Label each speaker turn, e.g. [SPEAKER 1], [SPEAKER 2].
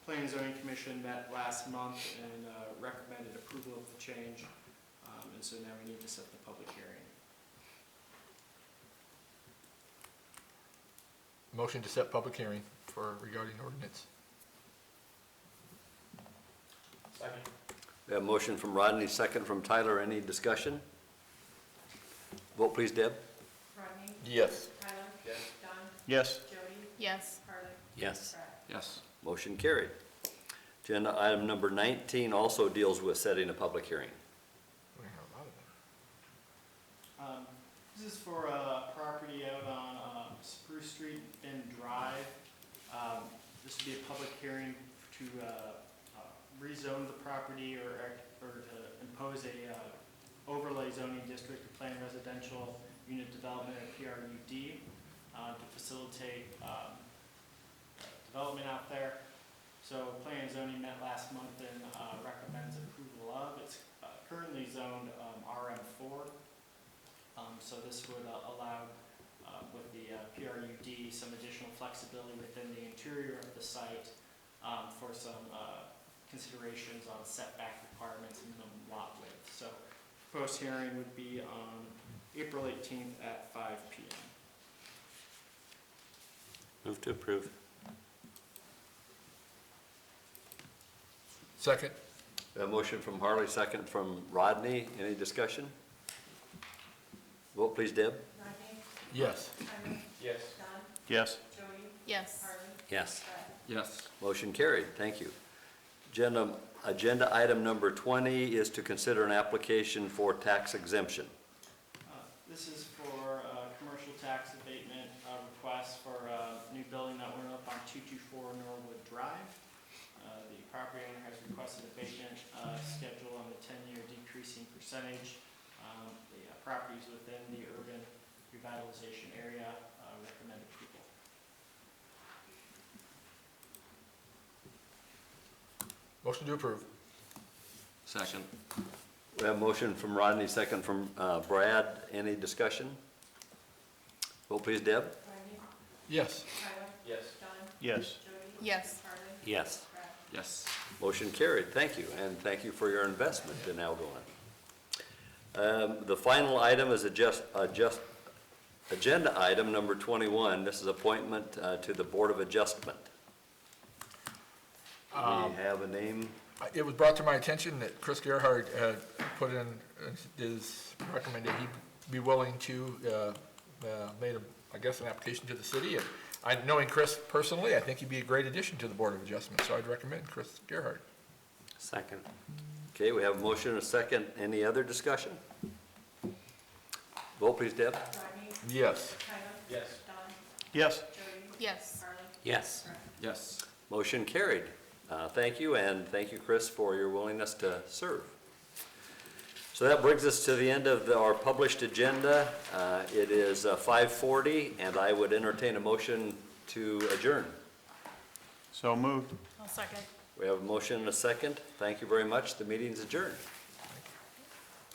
[SPEAKER 1] Zoning Commission met last month and uh, recommended approval of the change. Um, And so now we need to set the public hearing.
[SPEAKER 2] Motion to set public hearing for regarding ordinance.
[SPEAKER 1] Second.
[SPEAKER 3] We have a motion from Rodney, second from Tyler. Any discussion? Vote please, Deb.
[SPEAKER 4] Rodney?
[SPEAKER 2] Yes.
[SPEAKER 4] Tyler?
[SPEAKER 3] Yes.
[SPEAKER 4] Don?
[SPEAKER 5] Yes.
[SPEAKER 4] Jody?
[SPEAKER 6] Yes.
[SPEAKER 4] Harley?
[SPEAKER 3] Yes.
[SPEAKER 4] Brad?
[SPEAKER 5] Yes.
[SPEAKER 3] Motion carried. Agenda item number 19 also deals with setting a public hearing.
[SPEAKER 2] We have a lot of
[SPEAKER 1] Um,
[SPEAKER 2] them.
[SPEAKER 1] This is for a property out on um, Spruce Street and Drive. Um, This would be a public hearing to uh, uh, rezone the property or, or to impose a uh, overlay zoning district to plan residential unit development or PRUD uh, to facilitate um, development out there. So planning and zoning met last month and uh, recommends approval of. It's uh, currently zoned um, RM4. Um, So this would uh, allow, uh, with the uh, PRUD, some additional flexibility within the interior of the site um, for some uh, considerations on setback requirements and minimum lot width. So post hearing would be on April 18th at 5 PM.
[SPEAKER 3] Move to approve.
[SPEAKER 2] Second?
[SPEAKER 3] We have a motion from Harley, second from Rodney. Any discussion? Vote please, Deb.
[SPEAKER 4] Rodney?
[SPEAKER 2] Yes.
[SPEAKER 4] Tyler?
[SPEAKER 5] Yes.
[SPEAKER 4] Don?
[SPEAKER 5] Yes.
[SPEAKER 4] Jody?
[SPEAKER 6] Yes.
[SPEAKER 4] Harley?
[SPEAKER 3] Yes.
[SPEAKER 4] Brad?
[SPEAKER 5] Yes.
[SPEAKER 3] Motion carried. Thank you. Agenda, agenda item number 20 is to consider an application for tax exemption.
[SPEAKER 1] Uh, This is for uh, commercial tax abatement uh, request for a new building that went up on 224 Norwood Drive. Uh, The property owner has requested abatement uh, schedule on the 10-year decreasing percentage. Um, The uh, property is within the urban revitalization area, Uh, recommend approval.
[SPEAKER 2] Motion to approve.
[SPEAKER 5] Second.
[SPEAKER 3] We have a motion from Rodney, second from uh, Brad. Any discussion? Vote please, Deb.
[SPEAKER 4] Rodney?
[SPEAKER 2] Yes.
[SPEAKER 4] Tyler?
[SPEAKER 5] Yes.
[SPEAKER 4] Don?
[SPEAKER 5] Yes.
[SPEAKER 4] Jody?
[SPEAKER 6] Yes.
[SPEAKER 4] Harley?
[SPEAKER 3] Yes.
[SPEAKER 4] Brad?
[SPEAKER 5] Yes.
[SPEAKER 3] Motion carried. Thank you, and thank you for your investment in Algonquin. Um, The final item is adjust, adjust, agenda item number 21. This is appointment uh, to the Board of Adjustment. We have a name.
[SPEAKER 2] I- It was brought to my attention that Chris Gerhard had put in, uh, his recommended he be willing to, uh, uh, made a, I guess, an application to the city. And I, knowing Chris personally, I think he'd be a great addition to the Board of Adjustment, so I'd recommend Chris Gerhard.
[SPEAKER 3] Second. Okay, we have a motion and a second. Any other discussion? Vote please, Deb.
[SPEAKER 4] Rodney?
[SPEAKER 2] Yes.
[SPEAKER 4] Tyler?
[SPEAKER 5] Yes.
[SPEAKER 4] Don?
[SPEAKER 5] Yes.
[SPEAKER 4] Jody?
[SPEAKER 6] Yes.
[SPEAKER 4] Harley?
[SPEAKER 3] Yes.
[SPEAKER 4] Brad?
[SPEAKER 5] Yes.
[SPEAKER 3] Motion carried. Uh, Thank you, and thank you, Chris, for your willingness to serve. So that brings us to the end of the- our published agenda. Uh, It is uh, 5:40, and I would entertain a motion to adjourn.
[SPEAKER 5] So moved.
[SPEAKER 6] I'll second.
[SPEAKER 3] We have a motion and a second. Thank you very much. The meeting's adjourned.